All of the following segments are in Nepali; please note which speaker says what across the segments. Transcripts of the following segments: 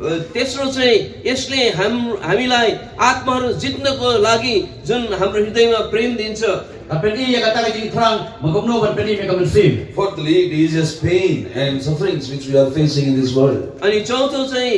Speaker 1: अ, तेस्रो चाहिँ यसले हाम हामीलाई आत्माहरू जित्नको लागि जुन हाम्रो हृदयमा प्रेम दिन्छ
Speaker 2: Kan pedi yang kata lagi terang, menggumno kan pedi mereka bersin.
Speaker 3: Fourthly, it eases pain and sufferings which we are facing in this world.
Speaker 1: अनि चौथो चाहिँ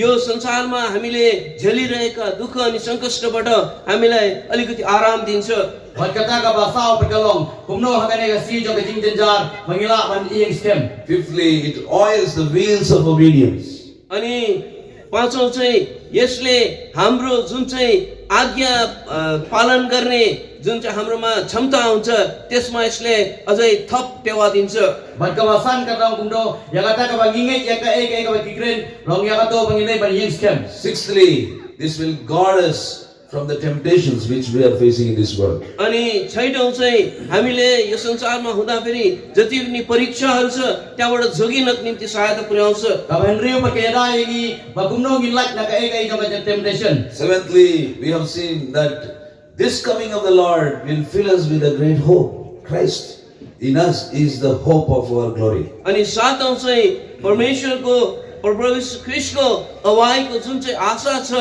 Speaker 1: यो संसारमा हामीले झेलिरहेका दुःख अनि सङ्कष्टबाट हामीलाई अलिकति आराम दिन्छ
Speaker 2: Wan kata ka basau perkelong, kumno hamene ka si jong kejing jenjar, mengilak wan ieng stem.
Speaker 3: Fifthly, it oils the wheels of obedience.
Speaker 1: अनि पाँचौँ चाहिँ यसले हाम्रो जुन चाहिँ आज्ञा अ, पालन गर्ने जुन चाहिँ हाम्रोमा क्षमता हुन्छ त्यसमा यसले अझै थप टेवा दिन्छ
Speaker 2: Wan kawasan kata kumno, yang kata eh, ka bangingai, yang ka ek, yang ka kikren, long yang kato pengilai wan ieng stem.
Speaker 3: Sixthly, this will guard us from the temptations which we are facing in this world.
Speaker 1: अनि छैटौँ चाहिँ हामीले यो संसारमा हुँदाखेरि जति पनि परीक्षाहरू छ त्यहाँबाट जोगिनको निम्ति सहायता पुर्याउँछ
Speaker 2: Ka Henry perkeda ini, bagumno ngilak na ka ek, yang ka temptation.
Speaker 3: Seventhly, we have seen that this coming of the Lord will fill us with a great hope. Christ in us is the hope of our glory.
Speaker 1: अनि सातौँ चाहिँ परमेश्वरको प्रभु यीशु ख्रिस्टको अवाईको जुन चाहिँ आशा छ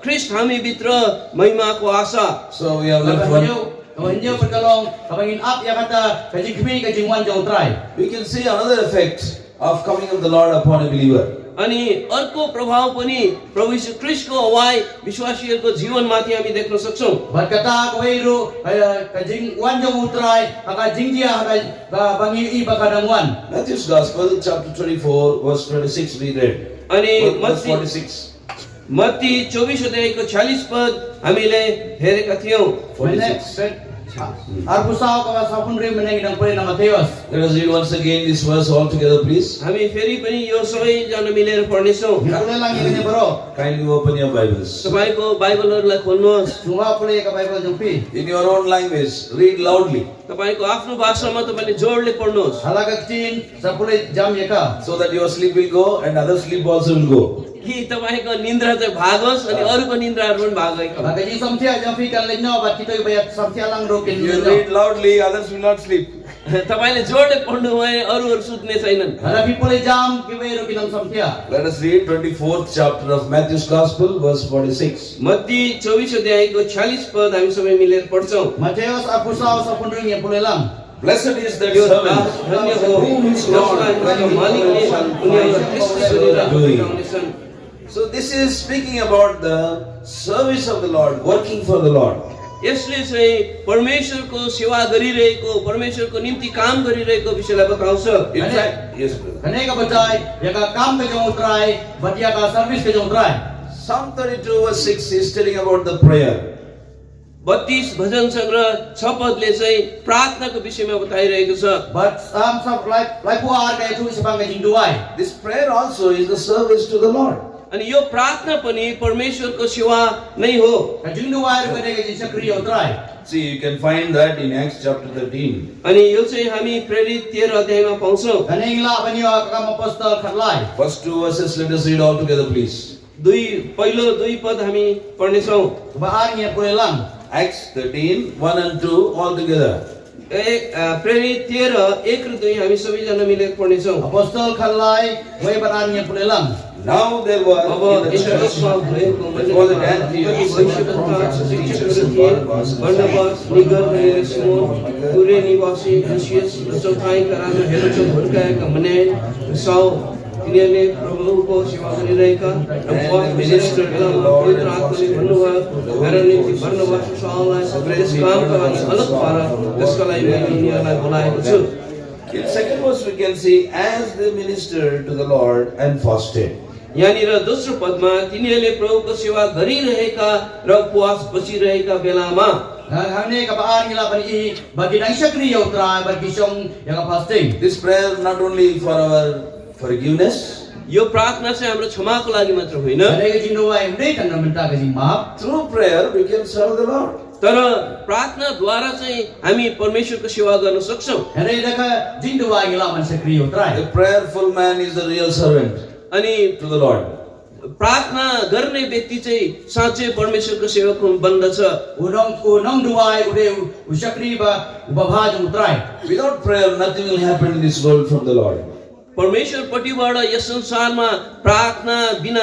Speaker 1: ख्रिस्ट हामीभित्र महिमाको आशा
Speaker 3: So we have
Speaker 2: Ka
Speaker 3: left
Speaker 2: Henry,
Speaker 3: one.
Speaker 2: ka Henry perkelong, ka bangin up yang kata kejing kmi, kejing wan jong trai.
Speaker 3: We can see another effect of coming of the Lord upon a believer.
Speaker 1: अनि अर्को प्रभाव पनि प्रभु यीशु ख्रिस्टको अवाई विश्वासीहरूको जीवनमाथि हामी देख्न सक्छौँ
Speaker 2: Wan kata ka weiru, kejing wan jong utrai, ka jing dia, ka bangi i bakadang wan.
Speaker 3: Matthew's Gospel, chapter 24, verse 26, we read.
Speaker 1: अनि
Speaker 3: Verse
Speaker 1: मत्ती
Speaker 3: 46.
Speaker 1: मत्ती चौबिस अध्यायको छ्यालिस पद हामीले हेरेका थियौँ
Speaker 3: 46.
Speaker 2: Arpusaw ka sapun rin menang idang pulin ng Mateos.
Speaker 3: Let us read once again this verse all together, please.
Speaker 1: हामी फेरि पनि यो सबैजना मिलेर पढ्नेछौँ
Speaker 2: Nakulay lang yung kanya bro.
Speaker 3: Kindly open your Bibles.
Speaker 1: तपाईँको बाइबलहरूलाई खोल्नुहोस्
Speaker 2: Suma pulay ka Bible jumpi.
Speaker 3: In your own language, read loudly
Speaker 1: तपाईँको आफ्नो भाषामा तपाईँले जोडले पढ्नुहोस्
Speaker 2: Halagak chin sa pulay jam ya yaka.
Speaker 3: so that your sleep will go and other sleep also will go.
Speaker 1: कि तपाईँको निन्द्रा चाहिँ भागोस् अनि अरूको निन्द्राहरू पनि भागेको
Speaker 2: Nagaji samtia jumpi kan lenyo bat kita yung bayat samtia lang rokin
Speaker 3: You read
Speaker 2: lenyo.
Speaker 3: loudly, others will not sleep.
Speaker 1: तपाईँले जोडले पढ्नु भयो अरूहरू सुत्ने छैनन्
Speaker 2: Halabi pulay jam kibay rokin ang samtia.
Speaker 3: Let us read 24th chapter of Matthew's Gospel, verse 46.
Speaker 1: Matthew चौबिस अध्यायको छ्यालिस पद हामी सबै मिलेर पढ्छौँ
Speaker 2: Mateos arpusaw sapun rin yung pulay lang.
Speaker 3: Blessed is that
Speaker 1: यो दास
Speaker 3: servant
Speaker 1: धन्य हो जसलाई उनका मालिकले उनीहरूलाई कृष्ण सुनेर हुटाउनेछन्।
Speaker 3: So this is speaking about the service of the Lord, working for the Lord.
Speaker 1: यसले चाहिँ परमेश्वरको सेवा गरिरहेको परमेश्वरको निम्ति काम गरिरहेको विषयलाई बताउँछ
Speaker 3: In
Speaker 2: Amen.
Speaker 3: fact, yes, brother.
Speaker 2: Kanay ka batay, yaka ya kam ka jong utray, bat yaka service ka jong utray.
Speaker 3: Psalm 32 verse 6 is telling about the prayer.
Speaker 1: बत्तीस भजन सङ्ग्रह छ पदले चाहिँ प्रार्थनाको विषयमा बताइरहेको छ
Speaker 2: But sam sa laipuar kaya tuwi sa pangkajing duway.
Speaker 3: This prayer also is the service to the Lord.
Speaker 1: अनि यो प्रार्थना पनि परमेश्वरको सेवा नै हो
Speaker 2: Kajing duway rin kanay kajing sakriya utray.
Speaker 3: See, you can find that in Acts chapter 13.
Speaker 1: अनि यो चाहिँ हामी प्रेरित तेह्र अध्यायमा पाउँछौँ
Speaker 2: Kaning la banyo kakam apostol karlay.
Speaker 3: First two verses, let us read all together, please.
Speaker 1: दुई पहिलो दुई पद हामी पढ्नेछौँ
Speaker 2: Bahan niya pulay lang.
Speaker 3: Acts 13, 1 and 2, all together.
Speaker 1: ए- अ, प्रेरित तेह्र एक र दुई हामी सबैजना मिलेर पढ्नेछौँ
Speaker 2: Apostol Kalai, way bahan niya pulay lang.
Speaker 3: Now there were
Speaker 1: अब
Speaker 3: in the church,
Speaker 1: इन्टरनेसमा भएको
Speaker 3: there was an
Speaker 1: मण्डलीमा भविष्यवक्ता, शिक्षकहरू थिए, बर्नबास, निगर र हिरसमोन, कुरे निवासी लुसियस र चौथाइका राजा हेरोदले हुर्काएका मनाय र साउ, तिनीहरूले प्रभुको सेवा गरिरहेका र पौल विशेषको बेलामा पवित्र आत्माले भन्नुभयो, मेरा निम्ति बर्नबास र साउलाई यस कामका लागि अलग पार त्यसका लागि मैले यिनीहरूलाई बोलाएको छु
Speaker 3: in second verse we can see, as they ministered to the Lord and fasted.
Speaker 1: यहाँनिर दोस्रो पदमा तिनीहरूले प्रभुको सेवा गरिरहेका र उपवास बसिरहेका बेलामा
Speaker 2: Hangni kabaan nila ban i bagi nang syakri yaw tra bagi syong yang fasting.
Speaker 3: This prayer not only for our forgiveness,
Speaker 1: यो प्रार्थना चाहिँ हाम्रो क्षमाको लागि मात्र होइन
Speaker 2: Kada ka jing duway mde kan na menta ka jing maap.
Speaker 3: through prayer we can serve the Lord.
Speaker 1: तर प्रार्थनाद्वारा चाहिँ हामी परमेश्वरको सेवा गर्न सक्छौँ
Speaker 2: Kada ka ka jing duway nila ban syakri yaw
Speaker 3: The
Speaker 2: tra.
Speaker 3: prayerful man is the real servant
Speaker 1: अनि
Speaker 3: to the Lord.
Speaker 1: प्रार्थना गर्ने व्यक्ति चाहिँ साँच्चै परमेश्वरको सेवक बन्दछ
Speaker 2: Unong unong duway ude usyakri ba ubabha jong tra.
Speaker 3: Without prayer, nothing will happen in this world from the Lord.
Speaker 1: परमेश्वरपट्टिबाट यस संसारमा प्रार्थना बिना